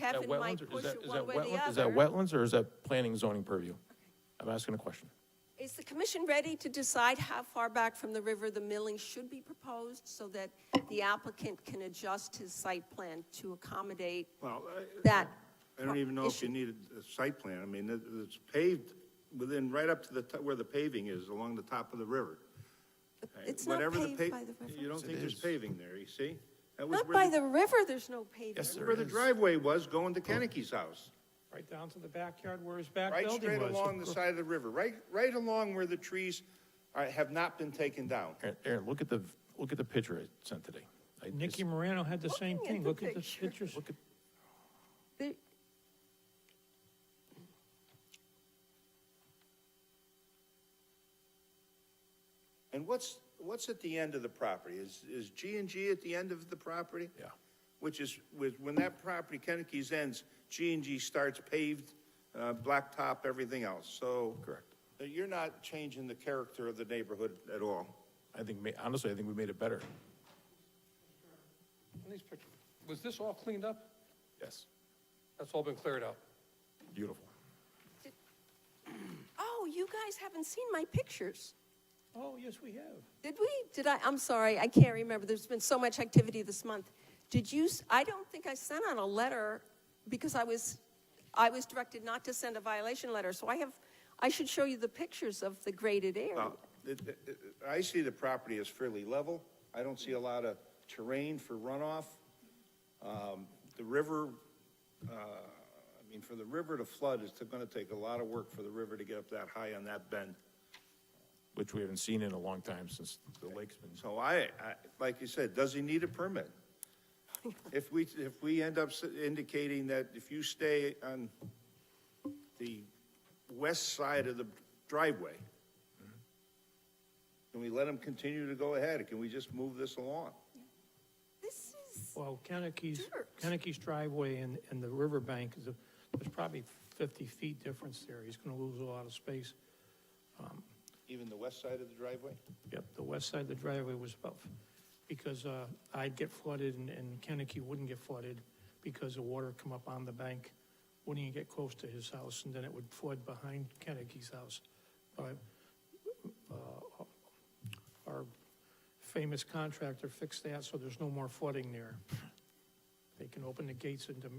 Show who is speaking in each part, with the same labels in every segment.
Speaker 1: That
Speaker 2: Kevin might
Speaker 1: wetlands or- is
Speaker 2: push
Speaker 1: that-
Speaker 2: it
Speaker 1: is
Speaker 2: one
Speaker 1: that
Speaker 2: way or the
Speaker 1: wetlands-
Speaker 2: other.
Speaker 1: Is that wetlands or is that planning and zoning purview? I'm asking a question.
Speaker 2: Is the commission ready to decide how far back from the river the milling should be proposed so that the applicant can adjust his site plan to accommodate
Speaker 3: Well, I-
Speaker 2: that?
Speaker 3: I don't even know if
Speaker 2: issue?
Speaker 3: you need a a site plan. I mean, it- it's paved within, right up to the, to- where the paving is, along the top of the river. Uh,
Speaker 2: It's not
Speaker 3: Whatever the
Speaker 2: paved
Speaker 3: pa-
Speaker 2: by the river.
Speaker 3: You don't think there's paving there, you see? That was
Speaker 2: Not
Speaker 3: where
Speaker 2: by the river, there's no pavement.
Speaker 3: that's Where the driveway was going to Kenicki's house,
Speaker 4: Right down to the backyard where his back
Speaker 3: right straight
Speaker 4: building
Speaker 3: along
Speaker 4: was.
Speaker 3: the side of the river, right, right along where the trees are, have not been taken down.
Speaker 1: Aaron- Aaron, look at the, look at the picture I sent today. I-
Speaker 4: Nicky
Speaker 1: it's-
Speaker 4: Morano had the same
Speaker 2: Looking at
Speaker 4: thing.
Speaker 2: the
Speaker 4: Look at the
Speaker 2: picture.
Speaker 4: pictures.
Speaker 1: Look at,
Speaker 2: There-
Speaker 3: And what's, what's at the end of the property? Is, is G and G at the end of the property?
Speaker 1: Yeah.
Speaker 3: Which is, with, when that property, Kenicki's ends, G and G starts paved, uh, blacktop, everything else, so.
Speaker 1: Correct.
Speaker 3: uh, You're not changing the character of the neighborhood at all.
Speaker 1: I think, ma- honestly, I think we made it better.
Speaker 5: On these pictures, was this all cleaned up?
Speaker 1: Yes,
Speaker 5: That's all been cleared out?
Speaker 1: beautiful.
Speaker 2: Oh, you guys haven't seen my pictures.
Speaker 4: Oh, yes, we have.
Speaker 2: Did we? Did I? I'm sorry, I can't remember. There's been so much activity this month. Did you, s- I don't think I sent out a letter because I was, I was directed not to send a violation letter. So I have, I should show you the pictures of the graded area.
Speaker 3: Well, Uh, it- it- it- I see the property as fairly level. I don't see a lot of terrain for runoff. Um, The river, uh, I mean, for the river to flood, it's going to take a lot of work for the river to get up that high on that bend.
Speaker 1: Which we haven't seen in a long time since the lake's been,
Speaker 3: So I, I- like you said, does he need a permit? If we, if we end up s- indicating that if you stay on the west side of the driveway, can we let him continue to go ahead? Can we just move this along?
Speaker 2: This is,
Speaker 4: Well, Kenneck's,
Speaker 2: Jerks.
Speaker 4: Kenneck's driveway and, and the riverbank is, a- there's probably 50 feet difference there. He's going to lose a lot of space.
Speaker 3: Even the west side of the driveway?
Speaker 4: Yep, the west side of the driveway was about, because uh, I'd get flooded and- and Kennecke wouldn't get flooded because the water come up on the bank, wouldn't even get close to his house, and then it would flood behind Kennecke's house. But, uh, Our famous contractor fixed that, so there's no more flooding there. They can open the gates into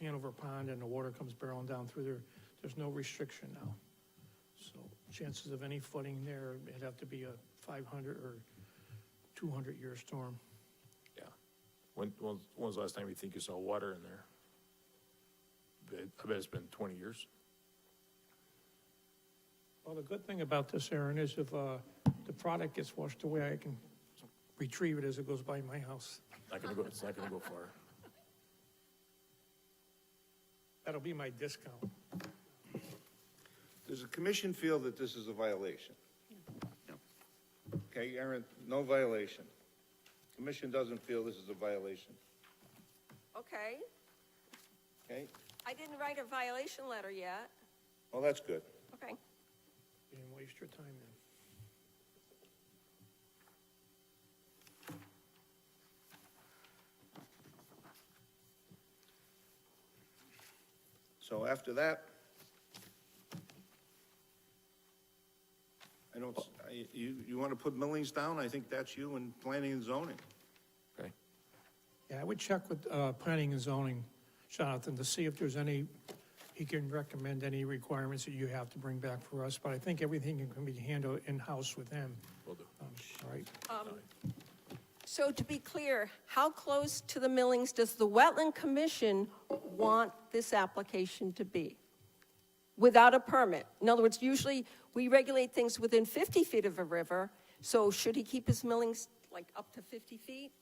Speaker 4: Hanover Pond and the water comes barreling down through there. There's no restriction now. So chances of any flooding there, it'd have to be a 500 or 200-year storm.
Speaker 1: yeah. When, when when was the last time you think you saw water in there? Bet- I bet it's been 20 years.
Speaker 4: Well, the good thing about this, Aaron, is if uh, the product gets washed away, I can retrieve it as it goes by my house.
Speaker 1: Not gonna go, it's not gonna go far.
Speaker 4: That'll be my discount.
Speaker 3: Does the commission feel that this is a violation? No. Okay, Aaron, no violation. Commission doesn't feel this is a violation,
Speaker 2: okay.
Speaker 3: okay?
Speaker 2: I didn't write a violation letter yet.
Speaker 3: Well, that's good.
Speaker 2: Okay.
Speaker 4: You didn't waste your time then.
Speaker 3: So after that, I don't, s- I- you, you want to put millings down? I think that's you and planning and zoning.
Speaker 1: Okay,
Speaker 4: Yeah, I would check with uh, planning and zoning, Jonathan, to see if there's any, he can recommend any requirements that you have to bring back for us, but I think everything can be handled in-house with him.
Speaker 1: will do.
Speaker 4: Um, All right,
Speaker 2: So to be clear, how close to the millings does the Wetland Commission want this application to be? Without a permit? In other words, usually we regulate things within 50 feet of a river, so should he keep his millings like up to 50 feet?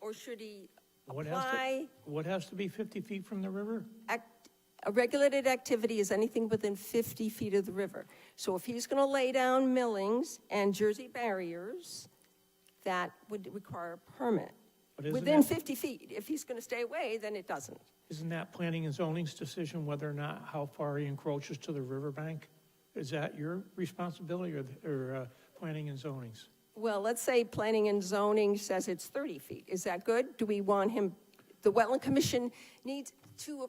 Speaker 2: Or should he
Speaker 4: What has to,
Speaker 2: apply?
Speaker 4: what has to be 50 feet from the river?
Speaker 2: act- A regulated activity is anything within 50 feet of the river. So if he's going to lay down millings and Jersey barriers, that would require a permit.
Speaker 4: But isn't
Speaker 2: Within
Speaker 4: it-
Speaker 2: 50 feet. If he's going to stay away, then it doesn't.
Speaker 4: Isn't that planning and zoning's decision whether or not, how far he encroaches to the riverbank? Is that your responsibility or, the- or uh, planning and zoning's?
Speaker 2: Well, let's say planning and zoning says it's 30 feet. Is that good? Do we want him, the Wetland Commission needs to